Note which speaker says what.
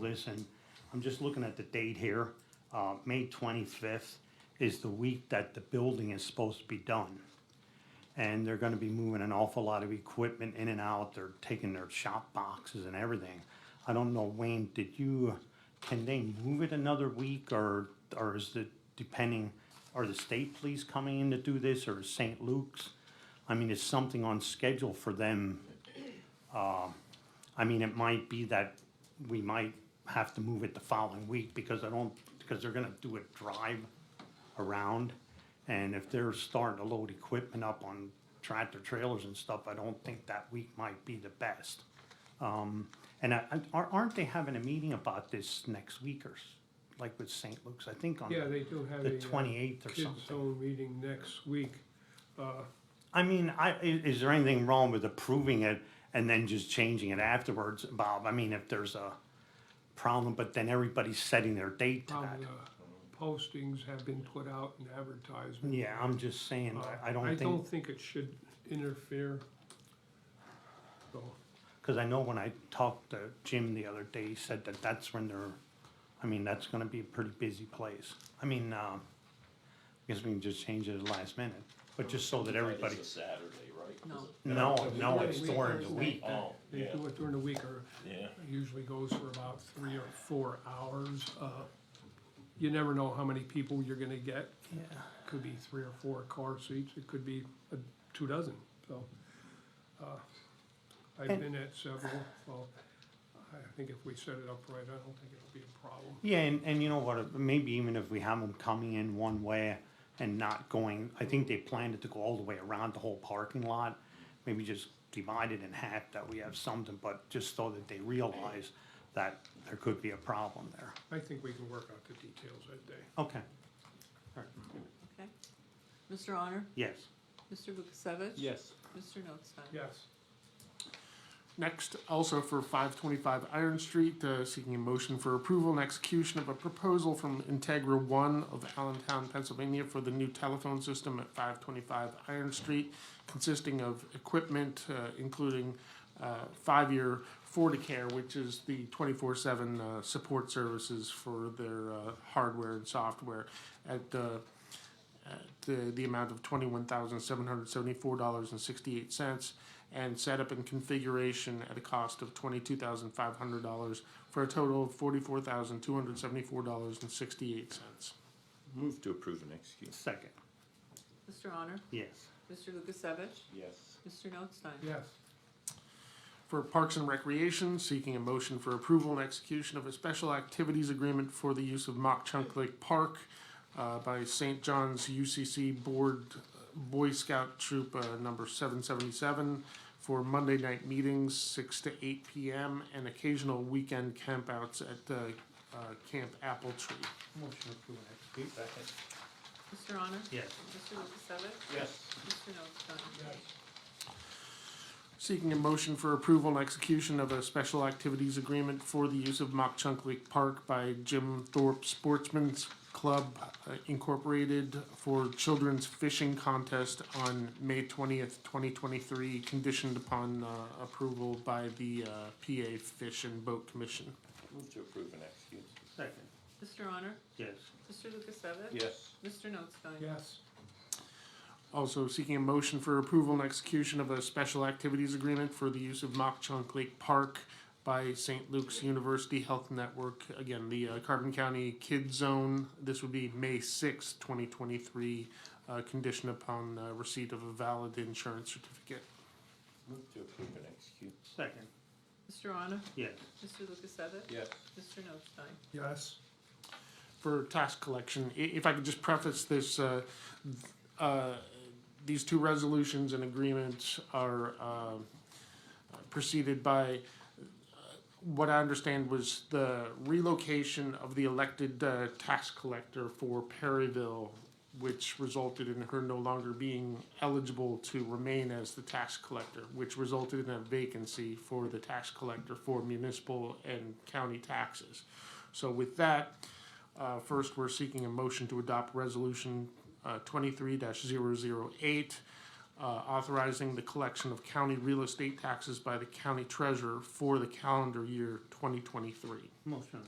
Speaker 1: this, and I'm just looking at the date here. Uh, May twenty-fifth is the week that the building is supposed to be done. And they're gonna be moving an awful lot of equipment in and out, they're taking their shop boxes and everything. I don't know, Wayne, did you, can they move it another week, or, or is it depending, are the state police coming in to do this, or is St. Luke's? I mean, is something on schedule for them I mean, it might be that we might have to move it the following week because I don't, because they're gonna do a drive around. And if they're starting to load equipment up on tractor trailers and stuff, I don't think that week might be the best. Um, and I, I- aren't, aren't they having a meeting about this next week or, s- like with St. Luke's, I think on
Speaker 2: Yeah, they do have
Speaker 1: the
Speaker 2: a uh,
Speaker 1: twenty-eighth or
Speaker 2: kids'
Speaker 1: something?
Speaker 2: zone meeting next week. Uh,
Speaker 1: I mean, I, i- is there anything wrong with approving it and then just changing it afterwards, Bob? I mean, if there's a problem, but then everybody's setting their date to
Speaker 2: How
Speaker 1: that.
Speaker 2: the postings have been put out and advertised.
Speaker 1: Yeah, I'm just saying,
Speaker 2: Uh,
Speaker 1: I- I don't
Speaker 2: I don't
Speaker 1: think,
Speaker 2: think it should interfere. So,
Speaker 1: because I know when I talked to Jim the other day, he said that that's when they're, I mean, that's gonna be a pretty busy place. I mean, um, I guess we can just change it at the last minute, but just so that everybody,
Speaker 3: It's a Saturday, right?
Speaker 4: No.
Speaker 1: no, no,
Speaker 2: Yeah,
Speaker 1: it's
Speaker 2: we-
Speaker 1: during the week.
Speaker 3: Oh,
Speaker 2: They
Speaker 3: yeah,
Speaker 2: do it during the week or
Speaker 3: yeah.
Speaker 2: it usually goes for about three or four hours. Uh, You never know how many people you're gonna get.
Speaker 1: Yeah.
Speaker 2: Could be three or four car seats, it could be uh, two dozen, so. uh, I've
Speaker 1: And-
Speaker 2: been at several, so I think if we set it up right, I don't think it'll be a problem.
Speaker 1: Yeah, and, and you know what, maybe even if we have them coming in one way and not going, I think they planned it to go all the way around the whole parking lot. Maybe just divide it in half, that we have something, but just so that they realize that there could be a problem there.
Speaker 2: I think we can work out the details that day.
Speaker 1: Okay,
Speaker 4: Okay. Mr. Honor?
Speaker 1: yes,
Speaker 4: Mr. Lukasevich?
Speaker 5: Yes.
Speaker 4: Mr. Notstein?
Speaker 2: Yes.
Speaker 5: Next, also for five twenty-five Iron Street, uh, seeking a motion for approval and execution of a proposal from Integra One of Allentown, Pennsylvania for the new telephone system at five twenty-five Iron Street, consisting of equipment, uh, including, uh, five-year FortiCare, which is the twenty-four-seven, uh, support services for their, uh, hardware and software at, uh, at the, the amount of twenty-one thousand seven hundred seventy-four dollars and sixty-eight cents, and setup and configuration at a cost of twenty-two thousand five hundred dollars for a total of forty-four thousand two hundred seventy-four dollars and sixty-eight cents.
Speaker 3: Move to approve and execute.
Speaker 1: second,
Speaker 4: Mr. Honor?
Speaker 1: yes,
Speaker 4: Mr. Lukasevich?
Speaker 3: Yes.
Speaker 4: Mr. Notstein?
Speaker 2: Yes.
Speaker 5: For Parks and Recreation, seeking a motion for approval and execution of a special activities agreement for the use of Mock Chunk Lake Park uh, by St. John's UCC Board uh, Boy Scout Troop uh, Number 777 for Monday night meetings, 6 to 8 p.m., and occasional weekend campouts at uh, uh, Camp Apple Tree.
Speaker 1: motion approved, execute,
Speaker 3: Second.
Speaker 4: Mr. Honor?
Speaker 1: yes,
Speaker 4: Mr. Lukasevich?
Speaker 3: Yes.
Speaker 4: Mr. Notstein?
Speaker 2: Yes.
Speaker 5: Seeking a motion for approval and execution of a special activities agreement for the use of Mock Chunk Lake Park by Jim Thorpe Sportsman's Club uh, Incorporated for Children's Fishing Contest on May twentieth, twenty twenty-three, conditioned upon uh, approval by the uh, PA Fish and Boat Commission.
Speaker 3: Move to approve and execute.
Speaker 1: second,
Speaker 4: Mr. Honor?
Speaker 1: yes,
Speaker 4: Mr. Lukasevich?
Speaker 3: Yes.
Speaker 4: Mr. Notstein?
Speaker 2: Yes.
Speaker 5: Also seeking a motion for approval and execution of a special activities agreement for the use of Mock Chunk Lake Park by St. Luke's University Health Network. Again, the uh, Carbon County Kids Zone. This would be May sixth, twenty twenty-three, uh, conditioned upon uh, receipt of a valid insurance certificate.
Speaker 3: Move to approve and execute.
Speaker 1: second,
Speaker 4: Mr. Honor?
Speaker 1: yes,
Speaker 4: Mr. Lukasevich?
Speaker 3: Yes.
Speaker 4: Mr. Notstein?
Speaker 2: Yes.
Speaker 5: for tax collection. I- If I could just preface this, uh, th- uh, these two resolutions and agreements are uh, preceded by uh, what I understand was the relocation of the elected uh, tax collector for Perryville, which resulted in her no longer being eligible to remain as the tax collector, which resulted in a vacancy for the tax collector for municipal and county taxes. So with that, uh, first, we're seeking a motion to adopt resolution, uh, twenty-three 8 uh, authorizing the collection of county real estate taxes by the county treasurer for the calendar year twenty twenty-three.
Speaker 1: Motion